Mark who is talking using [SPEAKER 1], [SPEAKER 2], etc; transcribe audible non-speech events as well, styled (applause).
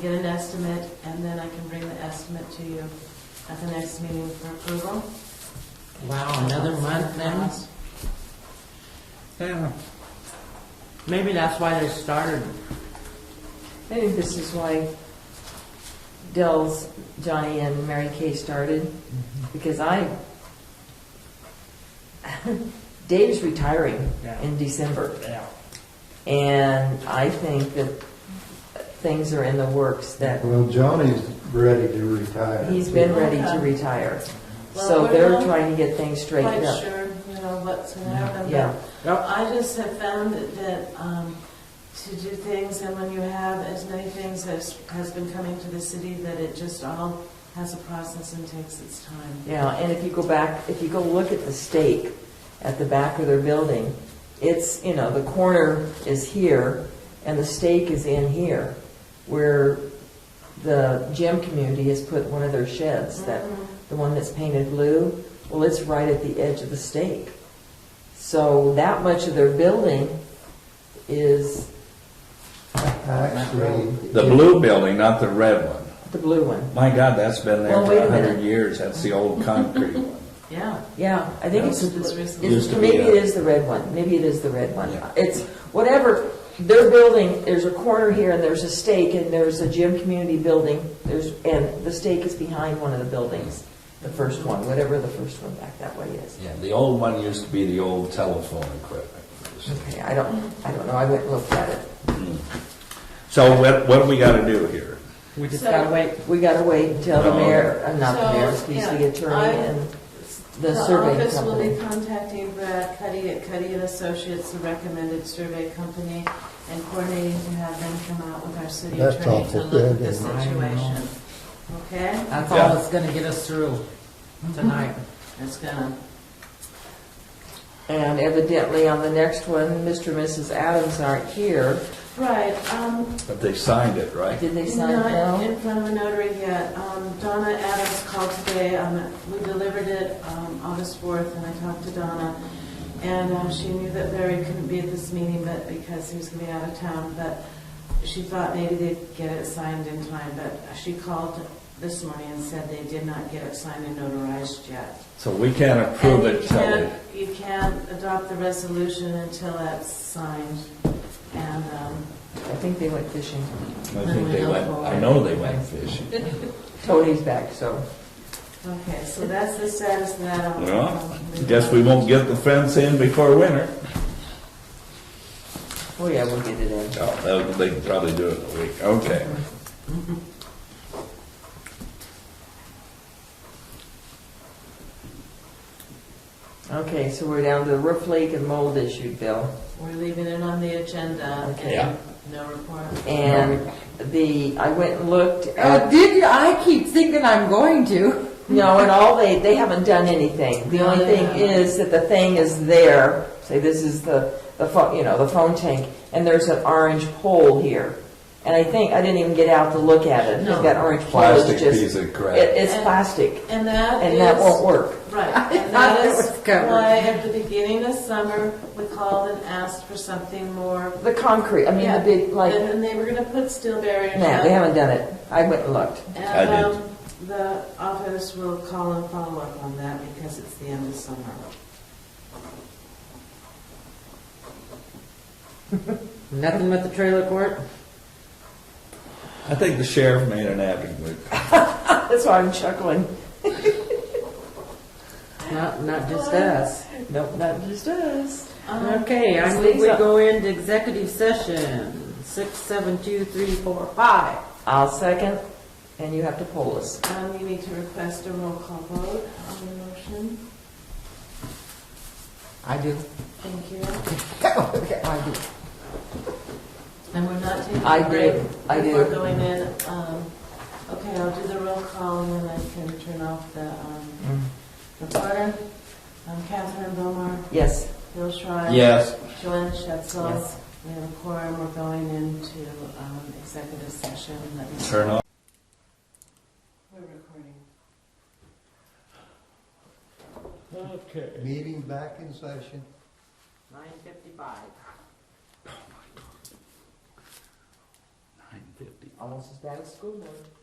[SPEAKER 1] get an estimate, and then I can bring the estimate to you at the next meeting for approval.
[SPEAKER 2] Wow, Oh, another month then?
[SPEAKER 3] Yeah,
[SPEAKER 2] Maybe that's why they started.
[SPEAKER 4] Maybe this is why Dell's, Johnny, and Mary Kay started, because I, (laughs) Dave's retiring
[SPEAKER 3] yeah,
[SPEAKER 4] in December,
[SPEAKER 3] yeah.
[SPEAKER 4] and I think that things are in the works, that
[SPEAKER 5] Well, Johnny's ready to retire.
[SPEAKER 4] he's been ready to retire.
[SPEAKER 1] Well,
[SPEAKER 4] So
[SPEAKER 1] we're
[SPEAKER 4] they're
[SPEAKER 1] not
[SPEAKER 4] trying to get things straightened
[SPEAKER 1] Quite
[SPEAKER 4] up.
[SPEAKER 1] sure, you know, what's
[SPEAKER 2] Mm-hmm.
[SPEAKER 1] gonna happen. but
[SPEAKER 4] Yeah,
[SPEAKER 1] I just have found that- that, um, to do things, and when you have as many things as has been coming to the city, that it just all has a process and takes its time.
[SPEAKER 4] yeah, and if you go back, if you go look at the stake at the back of their building, it's, you know, the corner is here, and the stake is in here, where the gym community has put one of their sheds, that,
[SPEAKER 1] Mhm.
[SPEAKER 4] the one that's painted blue, well, it's right at the edge of the stake. So that much of their building is
[SPEAKER 5] Actually,
[SPEAKER 6] The blue building, not the red one.
[SPEAKER 4] the blue one.
[SPEAKER 6] My God, that's been there
[SPEAKER 4] Well,
[SPEAKER 6] for
[SPEAKER 4] wait a
[SPEAKER 6] a hundred
[SPEAKER 4] minute.
[SPEAKER 6] years. That's the old concrete one.
[SPEAKER 1] Yeah.
[SPEAKER 4] Yeah, I think it's,
[SPEAKER 1] This is recent.
[SPEAKER 4] it's-
[SPEAKER 6] Used to be
[SPEAKER 4] maybe it
[SPEAKER 6] a-
[SPEAKER 4] is the red one, maybe it is the red one.
[SPEAKER 6] Yeah.
[SPEAKER 4] It's, whatever, their building, there's a corner here, and there's a stake, and there's a gym community building, there's, and the stake is behind one of the buildings, the first one, whatever the first one back that way is.
[SPEAKER 6] (laughs) Yeah, the old one used to be the old telephone equipment.
[SPEAKER 4] Okay, I don't, I don't know, I went and looked at it.
[SPEAKER 6] So what, what do we gotta do here?
[SPEAKER 2] We just
[SPEAKER 1] So-
[SPEAKER 2] gotta wait.
[SPEAKER 4] We gotta wait until the
[SPEAKER 6] No.
[SPEAKER 4] mayor, uh, not the
[SPEAKER 1] So,
[SPEAKER 4] mayor, excuse
[SPEAKER 1] yeah,
[SPEAKER 4] the
[SPEAKER 1] I-
[SPEAKER 4] attorney and the surveying
[SPEAKER 1] office will be
[SPEAKER 4] company.
[SPEAKER 1] contacting Brad Cuddy at Cuddy and Associates, the recommended survey company, and coordinating to have them come out with our city
[SPEAKER 5] That's
[SPEAKER 1] attorney to
[SPEAKER 5] awful
[SPEAKER 1] look at
[SPEAKER 5] good,
[SPEAKER 1] the
[SPEAKER 5] isn't
[SPEAKER 2] it? I know.
[SPEAKER 1] situation. Okay?
[SPEAKER 2] That's
[SPEAKER 6] Yeah.
[SPEAKER 2] all that's gonna get us through tonight.
[SPEAKER 1] It's gonna,
[SPEAKER 4] And evidently on the next one, Mr. and Mrs. Adams aren't here.
[SPEAKER 1] right, um,
[SPEAKER 6] But they signed it, right?
[SPEAKER 4] Did they sign
[SPEAKER 1] not
[SPEAKER 4] now?
[SPEAKER 1] in front of a notary yet. Um, Donna Adams called today, um, we delivered it, um, August fourth, and I talked to Donna. And, um, she knew that Larry couldn't be at this meeting, but, because he was gonna be out of town, but she thought maybe they'd get it signed in time, but she called this morning and said they did not get it signed and notarized yet.
[SPEAKER 6] So we can't approve
[SPEAKER 1] And
[SPEAKER 6] it
[SPEAKER 1] you
[SPEAKER 6] till
[SPEAKER 1] can't-
[SPEAKER 6] they-
[SPEAKER 1] You can't adopt the resolution until that's signed, and, um,
[SPEAKER 4] I think they went fishing.
[SPEAKER 6] I think they went, I know they went fishing.
[SPEAKER 4] Tony's back, so.
[SPEAKER 1] Okay, so that's the status of that. Um, I'll-
[SPEAKER 6] Well,
[SPEAKER 1] I'll-
[SPEAKER 6] Guess we won't get the fence in before winter.
[SPEAKER 4] Oh yeah, we'll get it in.
[SPEAKER 6] Oh, they'll- they can probably do it in a week, okay.
[SPEAKER 4] Okay, so we're down to the roof leak and mold issue, Bill.
[SPEAKER 1] We're leaving it on the agenda
[SPEAKER 4] Okay.
[SPEAKER 6] Yeah.
[SPEAKER 1] and no report.
[SPEAKER 4] And the, I went and looked
[SPEAKER 7] Uh,
[SPEAKER 4] at,
[SPEAKER 7] did you? I keep thinking I'm going to.
[SPEAKER 4] no, and all, they, they haven't done anything. The only thing is that the thing is there, say this is the, the phone, you know, the phone tank, and there's an orange pole here. And I think, I didn't even get out to look at it, I think that orange pole
[SPEAKER 6] Plastic
[SPEAKER 4] is
[SPEAKER 6] piece
[SPEAKER 4] just,
[SPEAKER 6] of
[SPEAKER 4] it,
[SPEAKER 6] crap.
[SPEAKER 4] it's plastic,
[SPEAKER 1] And that
[SPEAKER 4] and that won't
[SPEAKER 1] is,
[SPEAKER 4] work. (laughs)
[SPEAKER 1] right, and
[SPEAKER 7] I
[SPEAKER 1] that
[SPEAKER 7] thought it
[SPEAKER 1] is
[SPEAKER 7] was covered.
[SPEAKER 1] why at the beginning of summer, we called and asked for something more.
[SPEAKER 4] The concrete, I mean,
[SPEAKER 1] Yeah.
[SPEAKER 4] the big, like,
[SPEAKER 1] And and they were gonna put steel barriers
[SPEAKER 4] nah,
[SPEAKER 1] up.
[SPEAKER 4] they haven't done it. I went and looked.
[SPEAKER 6] I
[SPEAKER 1] And
[SPEAKER 6] did.
[SPEAKER 1] um, the office will call and follow up on that because it's the end of summer.
[SPEAKER 2] Nothing but the trailer court?
[SPEAKER 6] I think the sheriff made an avenue.
[SPEAKER 4] (laughs) That's why I'm chuckling.
[SPEAKER 2] Not, not just us.
[SPEAKER 4] Nope, not just us.
[SPEAKER 1] Um,
[SPEAKER 2] Okay, I
[SPEAKER 4] It's
[SPEAKER 2] think we
[SPEAKER 4] Lisa.
[SPEAKER 2] go into executive session, six, seven, two, three, four, five.
[SPEAKER 4] I'll second, and you have to poll us.
[SPEAKER 1] um, You need to request a roll call vote on the motion.
[SPEAKER 7] I do.
[SPEAKER 1] Thank you.
[SPEAKER 7] I do.
[SPEAKER 1] And we're not taking
[SPEAKER 4] I
[SPEAKER 1] a break?
[SPEAKER 4] do, I
[SPEAKER 1] Before
[SPEAKER 4] do.
[SPEAKER 1] going in, um, okay, I'll do the roll call and then I can turn off the um,
[SPEAKER 4] Mm.
[SPEAKER 1] recorder. Um, Catherine Bomar,
[SPEAKER 4] Yes,
[SPEAKER 1] Bill Schreier.
[SPEAKER 6] Yes.
[SPEAKER 1] Joanne Shetzel.
[SPEAKER 4] Yes.
[SPEAKER 1] We have a quorum. We're going into um, executive session. Let me-
[SPEAKER 6] Turn off.
[SPEAKER 1] We're recording.
[SPEAKER 3] Okay.
[SPEAKER 5] Meeting back in session.
[SPEAKER 2] Nine fifty-five.
[SPEAKER 6] Nine fifty.
[SPEAKER 4] almost as bad as school board.